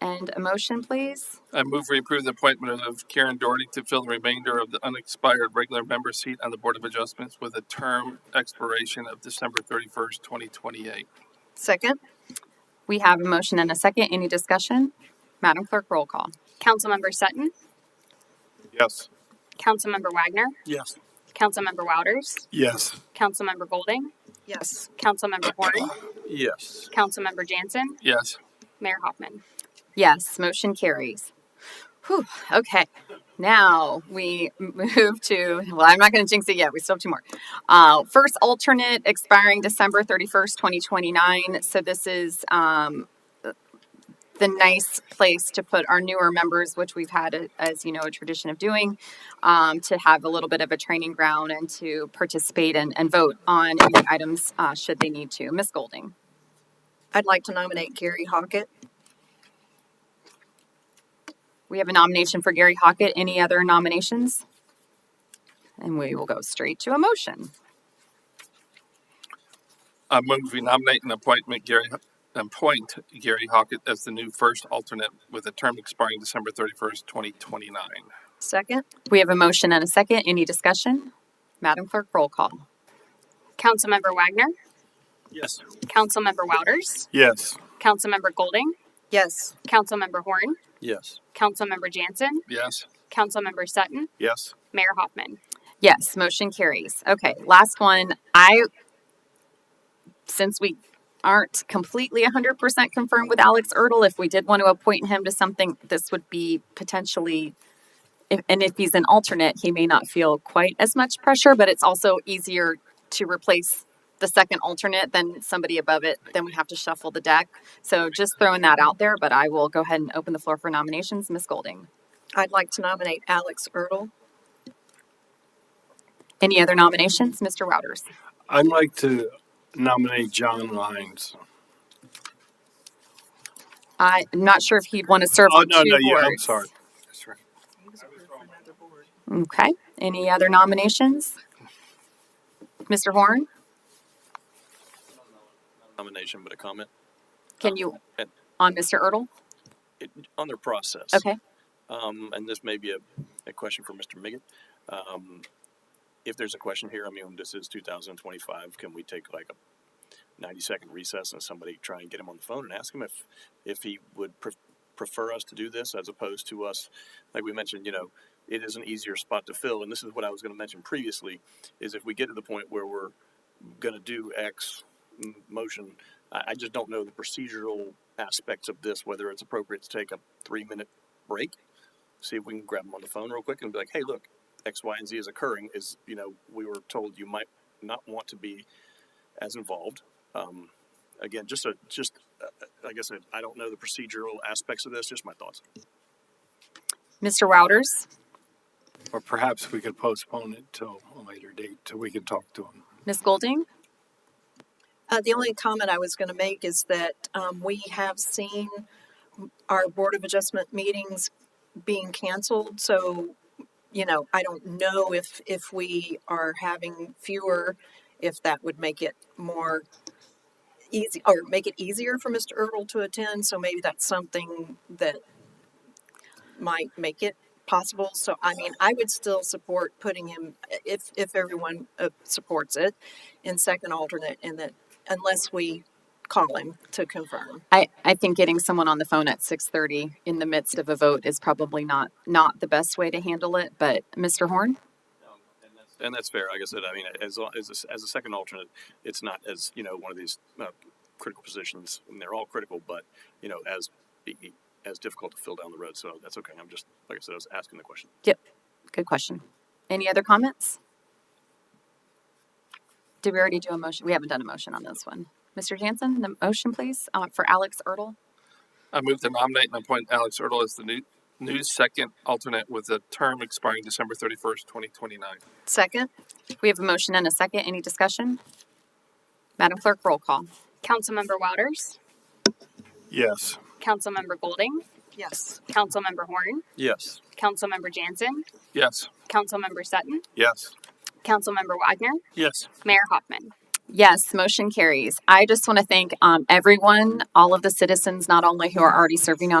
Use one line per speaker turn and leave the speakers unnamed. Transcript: And a motion, please?
I move we approve the appointment of Karen Doherty to fill the remainder of the unexpired regular member seat on the Board of Adjustments with a term expiration of December thirty-first, twenty twenty-eight.
Second. We have a motion and a second. Any discussion? Madam Clerk, roll call.
Councilmember Sutton,
Yes.
Councilmember Wagner,
Yes.
Councilmember Wouters,
Yes.
Councilmember Golding,
Yes.
Councilmember Horn,
Yes.
Councilmember Jansen,
Yes.
Mayor Hoffman.
Yes, motion carries. Whew, okay. Now we move to, well, I'm not going to jinx it yet. We still have two more. Uh, first alternate expiring December 31st, 2029. So this is um, the nice place to put our newer members, which we've had, a, as you know, a tradition of doing, um, to have a little bit of a training ground and to participate and, and vote on any items uh, should they need to. Ms. Golding.
I'd like to nominate Gary Hockett.
We have a nomination for Gary Hockett. Any other nominations? And we will go straight to a motion.
I move we nominate and appointment Gary, appoint Gary Hockett as the new first alternate with a term expiring December thirty-first, twenty twenty-nine.
Second.
We have a motion and a second. Any discussion? Madam Clerk, roll call.
Councilmember Wagner,
Yes.
Councilmember Wouters,
Yes.
Councilmember Golding,
Yes.
Councilmember Horn,
Yes.
Councilmember Jansen,
Yes.
Councilmember Sutton,
Yes.
Mayor Hoffman.
Yes, motion carries. Okay, last one. I, since we aren't completely 100% confirmed with Alex Ertl, if we did want to appoint him to something, this would be potentially, if, and if he's an alternate, he may not feel quite as much pressure, but it's also easier to replace the second alternate than somebody above it. Then we have to shuffle the deck. So just throwing that out there, but I will go ahead and open the floor for nominations. Ms. Golding.
I'd like to nominate Alex Ertl.
Any other nominations? Mr. Wouters.
I'd like to nominate John Lyons.
I'm not sure if he'd want to serve
Oh,
on
no,
two
no, yeah, I'm
boards.
sorry.
Okay. Any other nominations? Mr. Horn,
nomination, but a comment
can you
Uh,
on Mr. Ertl?
it, on their process.
Okay.
Um, and this may be a, a question for Mr. Miggett. Um, if there's a question here, I mean, this is 2025. Can we take like a 90 second recess and somebody try and get him on the phone and ask him if, if he would pre- prefer us to do this as opposed to us, like we mentioned, you know, it is an easier spot to fill. And this is what I was going to mention previously is if we get to the point where we're going to do X m- motion, I, I just don't know the procedural aspects of this, whether it's appropriate to take a three minute break, see if we can grab them on the phone real quick and be like, hey, look, X, Y, and Z is occurring. Is, you know, we were told you might not want to be as involved. Um, again, just a, just, uh, like I said, I don't know the procedural aspects of this, just my thoughts.
Mr. Wouters,
Or perhaps we could postpone it till a later date till we can talk to him.
Ms. Golding,
Uh, the only comment I was going to make is that um, we have seen our Board of Adjustment meetings being canceled. So, you know, I don't know if, if we are having fewer, if that would make it more easy or make it easier for Mr. Ertl to attend. So maybe that's something that might make it possible. So, I mean, I would still support putting him, if, if everyone uh, supports it, in second alternate and that unless we call him to confirm.
I, I think getting someone on the phone at 6:30 in the midst of a vote is probably not not the best way to handle it. But Mr. Horn,
And that's fair. Like I said, I mean, as, long- as, a, as a second alternate, it's not as, you know, one of these uh, critical positions, and they're all critical, but, you know, as, e, as difficult to fill down the road. So that's okay. I'm just, like I said, I was asking the question.
good question. Any other comments? Did we already do a motion? We haven't done a motion on this one. Mr. Jansen, the motion, please, uh, for Alex Ertl.
I move to nominate and appoint Alex Ertl as the new, new second alternate with a term expiring December thirty-first, twenty twenty-nine.
Second?
We have a motion and a second. Any discussion? Madam Clerk, roll call.
Councilmember Wouters,
Yes.
Councilmember Golding,
Yes.
Councilmember Horn,
Yes.
Councilmember Jansen,
Yes.
Councilmember Sutton,
Yes.
Councilmember Wagner,
Yes.
Mayor Hoffman.
Yes, motion carries. I just want to thank um, everyone, all of the citizens, not only who are already serving on